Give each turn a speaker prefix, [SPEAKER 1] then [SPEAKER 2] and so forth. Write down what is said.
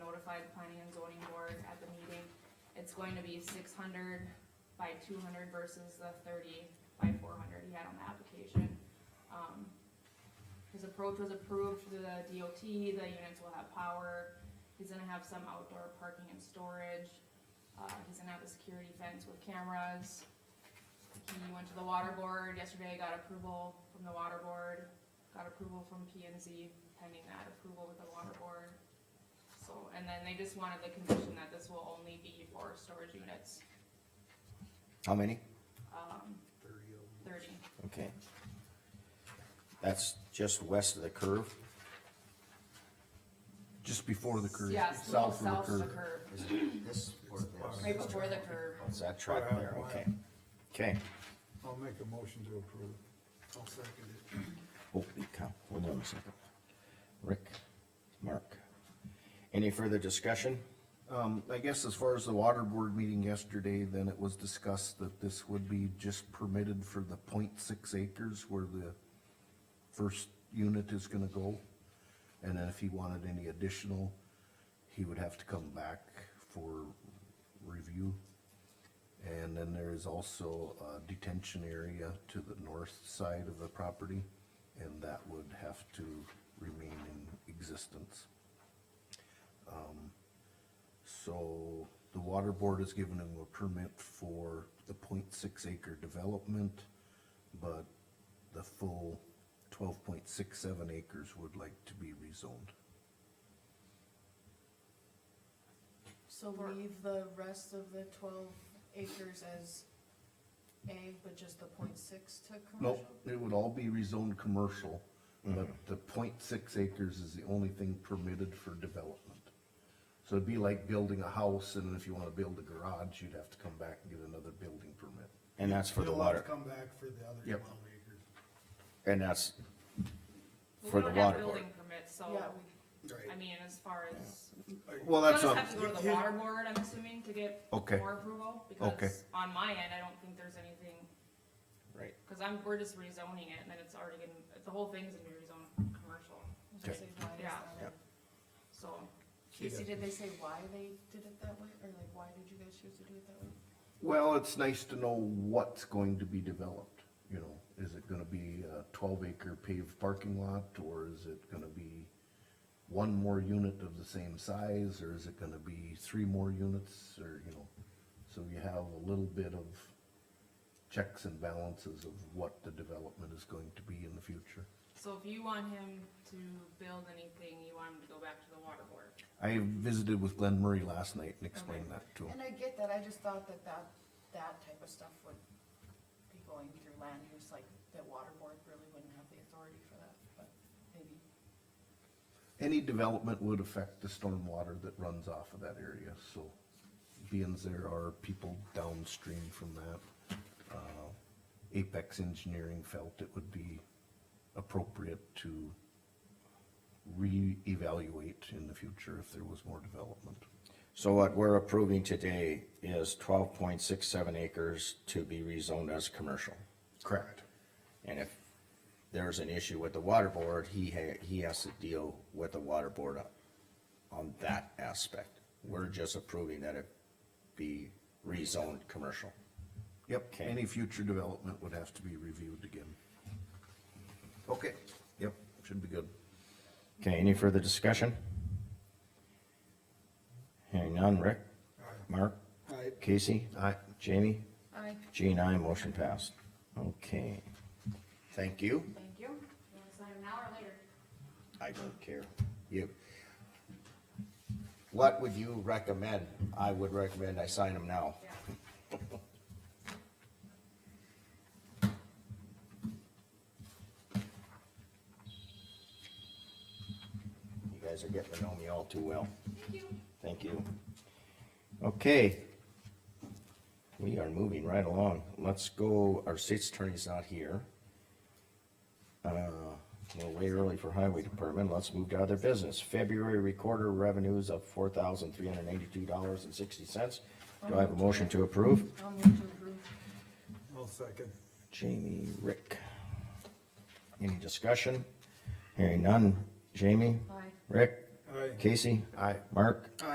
[SPEAKER 1] by the planning and zoning board at the meeting. It's going to be six hundred by two hundred versus the thirty by four hundred he had on the application. Um, his approach was approved through the DOT, the units will have power, he's gonna have some outdoor parking and storage. Uh, he's gonna have a security fence with cameras. He went to the water board yesterday, got approval from the water board, got approval from P and Z pending that approval with the water board. So, and then they just wanted the condition that this will only be for storage units,
[SPEAKER 2] How many?
[SPEAKER 1] um, thirty.
[SPEAKER 2] Okay. That's just west of the curve?
[SPEAKER 3] Just before the curve.
[SPEAKER 1] Yes, the
[SPEAKER 3] south
[SPEAKER 1] most
[SPEAKER 3] of the
[SPEAKER 1] south of the
[SPEAKER 3] curve.
[SPEAKER 1] curve,
[SPEAKER 2] Is this or
[SPEAKER 1] right before the curve.
[SPEAKER 2] It's that track there, okay. Okay.
[SPEAKER 4] I'll make a motion to approve. I'll second it.
[SPEAKER 2] Holy cow, hold on a second. Rick, Mark. Any further discussion?
[SPEAKER 3] Um, I guess as far as the water board meeting yesterday, then it was discussed that this would be just permitted for the 0.6 acres where the first unit is gonna go. And then if he wanted any additional, he would have to come back for review. And then there is also a detention area to the north side of the property, and that would have to remain in existence. So the water board has given him a permit for the 0.6 acre development, but the full twelve point six seven acres would like to be rezoned.
[SPEAKER 5] So
[SPEAKER 1] Or-
[SPEAKER 5] leave the rest of the twelve acres as A, but just the point six to commercial?
[SPEAKER 3] Nope, it would all be rezoned commercial, but the 0.6 acres is the only thing permitted for development. So it'd be like building a house, and if you wanna build a garage, you'd have to come back and get another building permit.
[SPEAKER 2] And that's for the
[SPEAKER 4] You'll have to
[SPEAKER 2] water,
[SPEAKER 4] Come back for the other
[SPEAKER 3] Yep.
[SPEAKER 4] twelve acres.
[SPEAKER 2] and that's
[SPEAKER 1] Well,
[SPEAKER 2] for
[SPEAKER 1] we
[SPEAKER 2] the
[SPEAKER 1] don't have
[SPEAKER 2] water board.
[SPEAKER 1] Building permits, so,
[SPEAKER 5] Yeah,
[SPEAKER 1] I mean, as far as,
[SPEAKER 3] Well,
[SPEAKER 1] you'll
[SPEAKER 3] that's
[SPEAKER 1] just
[SPEAKER 3] on,
[SPEAKER 1] have to go to the
[SPEAKER 4] Yeah.
[SPEAKER 1] water board, I'm assuming, to get
[SPEAKER 3] Okay.
[SPEAKER 1] more approval,
[SPEAKER 3] Okay.
[SPEAKER 1] because on my end, I don't think there's anything,
[SPEAKER 2] Right.
[SPEAKER 1] cause I'm, we're just rezoning it, and then it's already gonna, the whole thing's gonna be rezoned commercial,
[SPEAKER 5] I was gonna say, why is
[SPEAKER 1] Yeah.
[SPEAKER 5] that?
[SPEAKER 1] so.
[SPEAKER 5] Casey, did they say why they did it that way, or like, why did you guys choose to do it that way?
[SPEAKER 3] Well, it's nice to know what's going to be developed, you know, is it gonna be a twelve acre paved parking lot, or is it gonna be one more unit of the same size, or is it gonna be three more units, or, you know, so you have a little bit of checks and balances of what the development is going to be in the future.
[SPEAKER 1] So if you want him to build anything, you want him to go back to the water board.
[SPEAKER 3] I visited with Glenn Murray last night and explained that to him.
[SPEAKER 5] And I get that, I just thought that that, that type of stuff would be going through land use, like, the water board really wouldn't have the authority for that, but maybe.
[SPEAKER 3] Any development would affect the stormwater that runs off of that area, so being there are people downstream from that. uh, Apex Engineering felt it would be appropriate to reevaluate in the future if there was more development.
[SPEAKER 2] So what we're approving today is twelve point six seven acres to be rezoned as commercial.
[SPEAKER 3] Correct.
[SPEAKER 2] And if there's an issue with the water board, he ha- he has to deal with the water board on, on that aspect. We're just approving that it be rezoned commercial.
[SPEAKER 3] Yep,
[SPEAKER 2] Okay.
[SPEAKER 3] any future development would have to be reviewed again. Okay, yep, should be good.
[SPEAKER 2] Okay, any further discussion? Hearing none, Rick? Mark?
[SPEAKER 4] Aye.
[SPEAKER 2] Casey?
[SPEAKER 3] Aye.
[SPEAKER 2] Jamie?
[SPEAKER 5] I
[SPEAKER 2] Jean, I motion passed. Okay.
[SPEAKER 1] Thank
[SPEAKER 2] Thank you.
[SPEAKER 1] you. You wanna sign him now or later?
[SPEAKER 2] I don't care. You. What would you recommend? I would recommend I sign them now.
[SPEAKER 1] Yeah.
[SPEAKER 2] You guys are getting to know me all too well.
[SPEAKER 1] Thank you.
[SPEAKER 2] Thank you. Okay. We are moving right along. Let's go, our state's attorney's not here. Uh, We're way early for highway department. Let's move to other business. February recorder revenues of four thousand three hundred eighty-two dollars and sixty cents. Do I have a motion to approve?
[SPEAKER 5] I'll move to approve.
[SPEAKER 4] I'll second.
[SPEAKER 2] Jamie, Rick. Any discussion? Hearing none. Jamie?
[SPEAKER 5] Aye.
[SPEAKER 2] Rick?
[SPEAKER 4] Aye.
[SPEAKER 2] Casey?
[SPEAKER 3] Aye.
[SPEAKER 2] Mark?